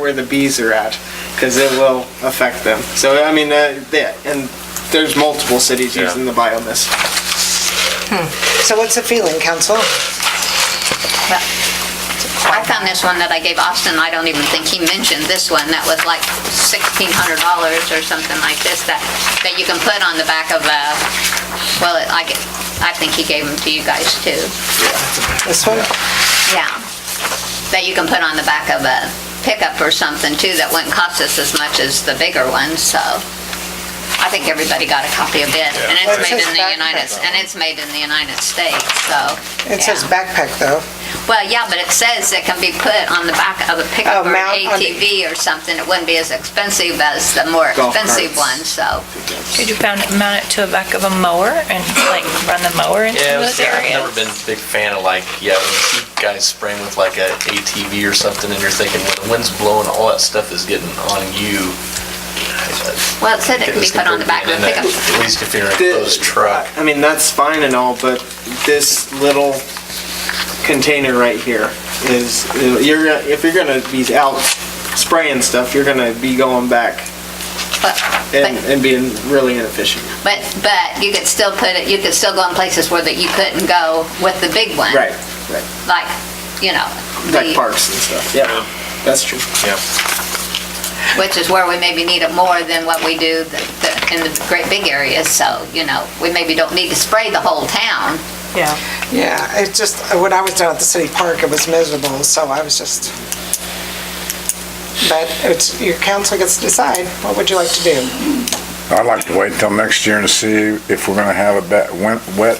where the bees are at, because it will affect them. So, I mean, uh, yeah, and there's multiple cities Yeah. using the biomist. So what's the feeling, council? But I found this one that I gave Austin, I don't even think he mentioned this one, that was like $1,600 or something like this, that, that you can put on the back of a, well, it- I, get- I think he gave them to you guys too, This one? yeah. That you can put on the back of a pickup or something too, that wouldn't cost us as much as the bigger ones, so I think everybody got a copy of it, and Well, it's it made says in the back United, cover. and it's made in the United States, so. It says yeah. backpack, though. Well, yeah, but it says it can be put on the back of a Oh, pickup or mount an on the- ATV or something. It wouldn't be as expensive as the more Golf expensive carts. ones, so. Could you mount it, mount it to the back of a mower and like run the mower into Yeah, those see, I've never areas? been a big fan of like, yeah, when you see guys spraying with like a ATV or something and you're thinking, when the wind's blowing, all that stuff is getting on you. Well, it said it could be This put on the back of a in that, pickup. At least if you're in a The- closed truck. I mean, that's fine and all, but this little container right here is, you're, gonna- if you're gonna be out spraying stuff, you're gonna be going back But, and, but- and being really inefficient. but, but you could still put it, you could still go in places where that you couldn't go with the big one. Right, right. Like, you know, Like the, parks and stuff, yeah, that's true. Yeah. which is where we maybe need it more than what we do the- the- in the great big areas. So, you know, we maybe don't need to spray the whole town. Yeah. Yeah, it just, when I was down at the city park, it was miserable, so I was just... But it's, your council gets to decide, what would you like to do? I'd like to wait until next year and see if we're gonna have a bet, wet, wet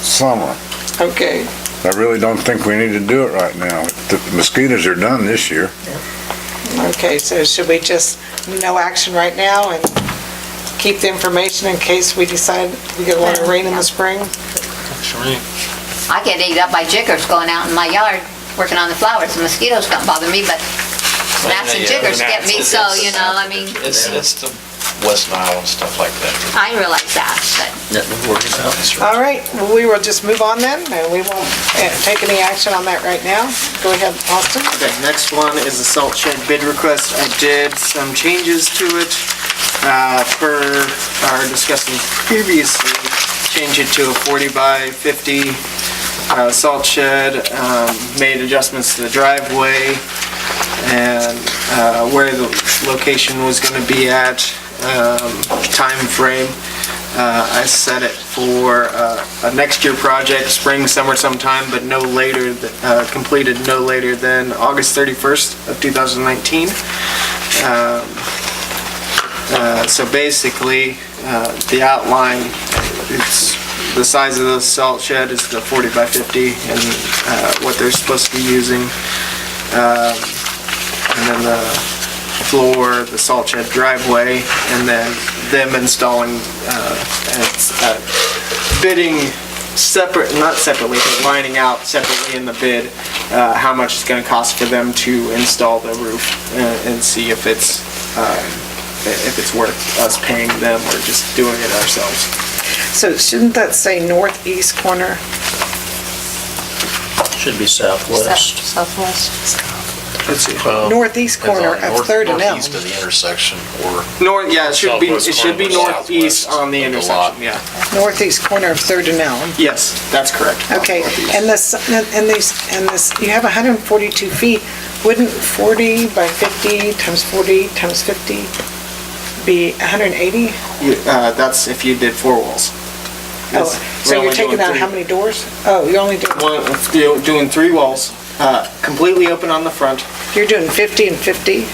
summer. Okay, I really don't think we need to do it right now. The mosquitoes are done this year. okay, so should we just, no action right now and keep the information in case we decide we get a lot of rain in the spring? I get eat up by jiggers going out in my yard, working on the flowers. The mosquitoes don't bother me, but gnats and Yeah, jiggers get me, gnats, so, it's- you know, I mean, It's, it's the West Nile and stuff like that. I realize that, but All right, well, we will just move on then, and we won't eh, take any action on that right now. Go ahead, Austin. Okay, next one is the salt shed bid request. I did some changes to it, uh, per our discussion previously. Change it to a forty by fifty, uh, salt shed, um, made adjustments to the driveway and, uh, where the location was gonna be at, um, frame. Uh, I set it for uh, a next year project, spring, summer sometime, but no later, th- uh, completed no later than August 31st of 2019. Um, uh, So basically, uh, the outline, it's, the size of the salt shed is the 40 by 50 and uh, what they're supposed to be using. Um, And then the floor, the salt shed driveway, and then them installing it's, uh, bidding separate, not separately, but lining out separately in the bid, uh, how much it's gonna cost for them to install the roof uh, and see if it's, um, if it's worth us paying them or just doing it ourselves. So shouldn't that say northeast corner? Should be southwest. Southwest. Let's see. Northeast corner of Third and Elm. Northeast of the intersection or North, yeah, it should be, it Southwest should be corner, northeast southwest on the of the lot. intersection, yeah. Northeast corner of Third and Elm. Yes, that's correct. Okay, Northeast. and this, and these, and this, you have 142 feet. Wouldn't 40 by 50 times 40 times 50 be 180? You- uh, That's if you did four walls. Oh, Yes, we're So you're only doing taking out three. how many doors? Oh, you're only doing, One, you're doing three walls, uh, completely open on the front, you're doing 50 and 50?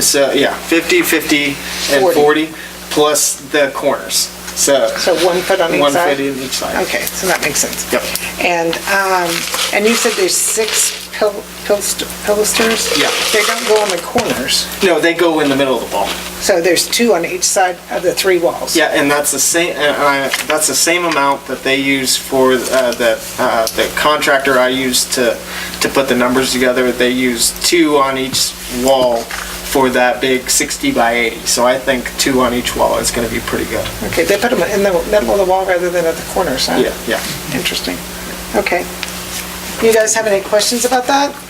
So, yeah, 50, 50, and 40. 40, plus the corners. So, So one foot on each side? 150 on each side. Okay, so that makes sense. Yep. And, um, and you said there's six pil- pilst- pilasters? Yeah. They don't go on the corners, No, they go in the middle of the wall. so there's two on each side of the three walls? Yeah, and that's the same, uh, uh, that's the same amount that they use for, uh, the, uh, the contractor I used to, to put the numbers together. They use two on each wall for that big 60 by 80. So I think two on each wall is gonna be pretty good. Okay, they put them in the middle of the wall rather than at the corners, huh? Yeah, yeah. Interesting. Okay. You guys have any questions about that?